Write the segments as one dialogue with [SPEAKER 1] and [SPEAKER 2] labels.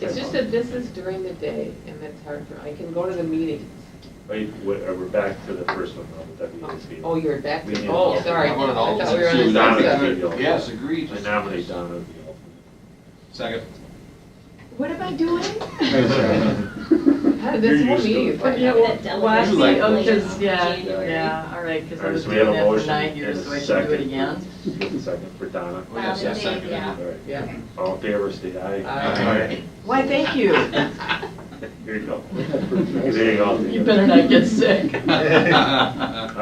[SPEAKER 1] It's just that this is during the day, and that's hard for, I can go to the meetings.
[SPEAKER 2] Wait, wait, uh, we're back to the first one, though, the WASB.
[SPEAKER 1] Oh, you're back,
[SPEAKER 2] We need
[SPEAKER 1] to oh,
[SPEAKER 2] to-
[SPEAKER 1] sorry, I
[SPEAKER 3] How about an
[SPEAKER 1] thought we were on
[SPEAKER 3] alternate?
[SPEAKER 1] the
[SPEAKER 2] Donna
[SPEAKER 1] same
[SPEAKER 2] can
[SPEAKER 1] stuff.
[SPEAKER 2] be the alternate.
[SPEAKER 3] Yes, agreed.
[SPEAKER 2] I nominate Donna as the alternate.
[SPEAKER 3] Second.
[SPEAKER 4] What am I doing?
[SPEAKER 1] How did this
[SPEAKER 2] You're
[SPEAKER 1] whole
[SPEAKER 2] used to
[SPEAKER 1] meeting
[SPEAKER 2] it.
[SPEAKER 1] is
[SPEAKER 2] But
[SPEAKER 1] like
[SPEAKER 2] yeah,
[SPEAKER 1] that?
[SPEAKER 2] well-
[SPEAKER 5] Well, I
[SPEAKER 3] You
[SPEAKER 5] see,
[SPEAKER 3] like
[SPEAKER 5] oh,
[SPEAKER 3] motion.
[SPEAKER 5] just, yeah,
[SPEAKER 4] January.
[SPEAKER 5] yeah, all right, because
[SPEAKER 2] All
[SPEAKER 5] I
[SPEAKER 2] right,
[SPEAKER 5] was
[SPEAKER 2] so we
[SPEAKER 5] doing
[SPEAKER 2] have a
[SPEAKER 5] that for
[SPEAKER 2] motion
[SPEAKER 5] nine
[SPEAKER 2] and a
[SPEAKER 5] years, so I should do
[SPEAKER 2] second.
[SPEAKER 5] it again.
[SPEAKER 2] You get the second for Donna.
[SPEAKER 3] Oh, yes, yes, second.
[SPEAKER 2] All right.
[SPEAKER 1] Yeah.
[SPEAKER 2] All in favor, say aye.
[SPEAKER 1] Aye.
[SPEAKER 5] Why, thank you.
[SPEAKER 2] Here you go. There you go.
[SPEAKER 5] You better not get sick.
[SPEAKER 2] All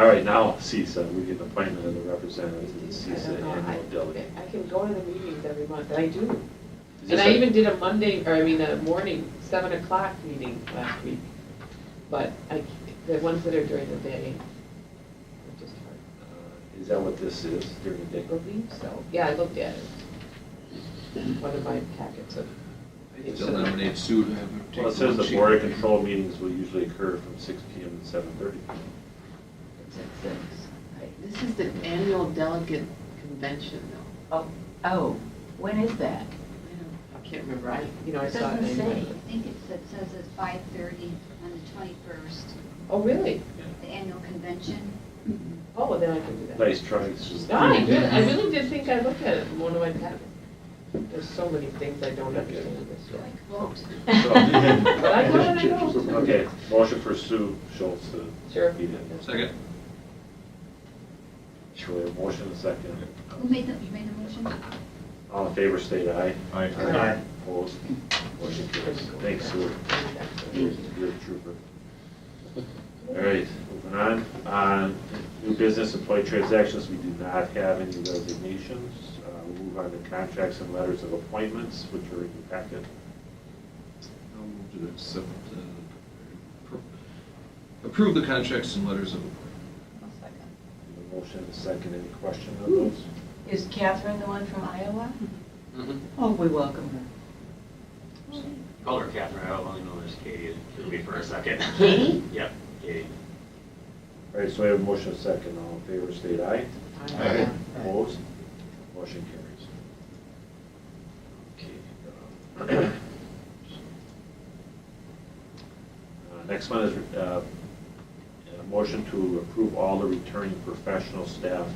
[SPEAKER 2] right, now CISA, we get the appointment of the representatives to the
[SPEAKER 1] I don't
[SPEAKER 2] CISA
[SPEAKER 1] know,
[SPEAKER 2] annual delegate.
[SPEAKER 1] I I can go to the meetings every month, and I do.
[SPEAKER 3] Is
[SPEAKER 1] And
[SPEAKER 3] this
[SPEAKER 1] I
[SPEAKER 3] a-
[SPEAKER 1] even did a Monday, or I mean, a morning, seven o'clock meeting last week. But I, c- the ones that are during the day, are just hard.
[SPEAKER 2] Uh, Is that what this is during the
[SPEAKER 1] I
[SPEAKER 2] day?
[SPEAKER 1] believe so. Yeah, I looked at it. One of my packets of.
[SPEAKER 3] Still nominate Sue to have her take.
[SPEAKER 2] Well, it says the
[SPEAKER 3] one.
[SPEAKER 2] board of control meetings will usually occur from six PM to seven thirty.
[SPEAKER 4] This is the annual delegate convention, though.
[SPEAKER 6] Oh, oh, when is that?
[SPEAKER 4] I can't remember, I, you know, I
[SPEAKER 6] It
[SPEAKER 1] saw it
[SPEAKER 6] doesn't
[SPEAKER 1] anyway.
[SPEAKER 6] say.
[SPEAKER 7] I think it's, it says it's five thirty on the twenty-first,
[SPEAKER 1] Oh, really?
[SPEAKER 7] the annual convention.
[SPEAKER 1] Oh, then I can do that.
[SPEAKER 2] Nice try. Sue.
[SPEAKER 1] No, I did, I really did think I looked at it, in one of my packets. There's so many things I don't understand in this
[SPEAKER 7] Do
[SPEAKER 1] way.
[SPEAKER 7] I vote?
[SPEAKER 1] But I go and I go.
[SPEAKER 2] Okay, motion for Sue Schultz to
[SPEAKER 1] Sure.
[SPEAKER 2] be the,
[SPEAKER 3] Second.
[SPEAKER 2] sure, motion and second.
[SPEAKER 7] Who made the, you made the motion?
[SPEAKER 2] All in favor, state aye.
[SPEAKER 3] Aye.
[SPEAKER 1] Aye.
[SPEAKER 2] Opposed? Motion carries. Thanks, Sue. You're you're a trooper. All right, moving on. Uh, New business employee transactions, we do not have any resignations. Uh, We'll move on to contracts and letters of appointments, which are in your packet.
[SPEAKER 3] I'll move to accept, uh, pro- approve the contracts and letters of appointment.
[SPEAKER 2] The motion and second, any question on those?
[SPEAKER 6] Is Catherine the one from Iowa?
[SPEAKER 2] Mm-hmm.
[SPEAKER 6] Oh, we welcome her.
[SPEAKER 8] Call her Catherine, I only know her as Katie, it'll be for a second.
[SPEAKER 6] Katie?
[SPEAKER 8] Yep, Katie.
[SPEAKER 2] All right, so we have a motion and second. All in favor, state aye.
[SPEAKER 3] Aye.
[SPEAKER 2] Opposed? Motion carries. Okay. uh, uh, Next one is uh, a motion to approve all the returning professional staff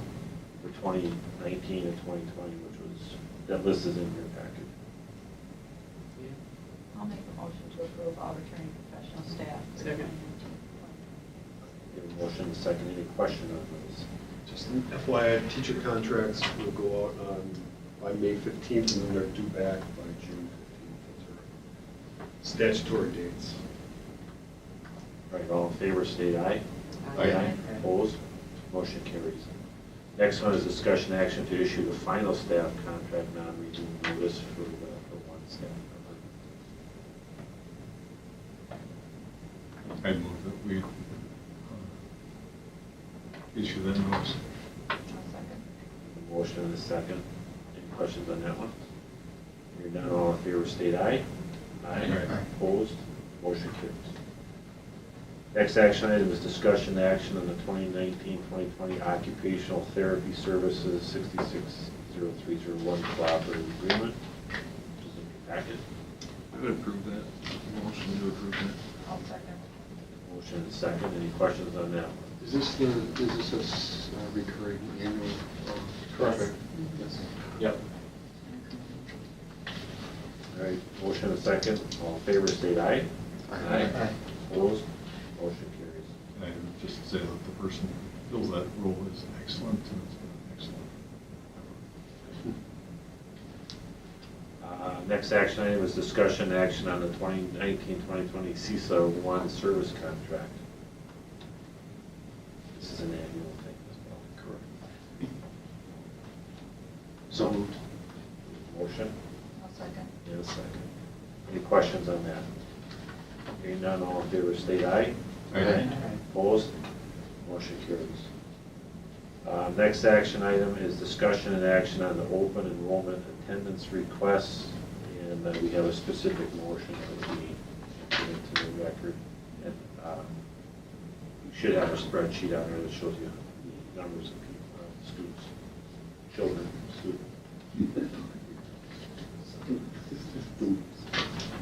[SPEAKER 2] for 2019 and 2020, which was, that list is in your packet.
[SPEAKER 6] I'll make a motion to approve all returning professional staff.
[SPEAKER 1] Second.
[SPEAKER 2] We have a Motion and second. Any question on those?
[SPEAKER 9] Just FYI, teacher contracts will go out on, by May 15th, and then they're due back by June 15th. Those are Statutory dates.
[SPEAKER 2] All right, all in favor, state aye.
[SPEAKER 3] Aye.
[SPEAKER 2] Opposed? Motion carries. Next one is discussion action to issue the final staff contract non-renewal notice for the for one staff member.
[SPEAKER 10] I move that we uh, issue that notice.
[SPEAKER 2] Motion and a second. Any questions on that one? Hearing none, all in favor, state aye.
[SPEAKER 10] Aye.
[SPEAKER 2] Opposed? Motion carries. Next action item is discussion action on the 2019-2020 Occupational Therapy Services 660301 Cooperative Agreement, which is in your packet.
[SPEAKER 3] I would approve that, motion to approve that.
[SPEAKER 6] I'll second.
[SPEAKER 2] Motion and second, any questions on that? one?
[SPEAKER 9] Is this the, is this a s- uh, recurring annual? um,
[SPEAKER 6] Correct.
[SPEAKER 9] Yes.
[SPEAKER 2] Yep. All right, motion and second, all in favor, state aye.
[SPEAKER 3] Aye.
[SPEAKER 2] Opposed, motion carries.
[SPEAKER 10] And I would just say that the person who fills that role is excellent and it's been an excellent.
[SPEAKER 2] Uh, Next action item is discussion action on the 2019-2020 CISA one service contract. This is an annual thing as well. Correct. So moved. Motion?
[SPEAKER 6] I'll second.
[SPEAKER 2] And a second. Any questions on that? Hearing none, all in favor, state aye.
[SPEAKER 10] Aye.
[SPEAKER 2] Opposed? Motion carries. Uh, Next action item is discussion and action on the open enrollment attendance requests, and uh, we have a specific motion that we put into the record. And uh, we should have a spreadsheet out there that shows you the numbers of people, uh, students, children, students.
[SPEAKER 9] Students.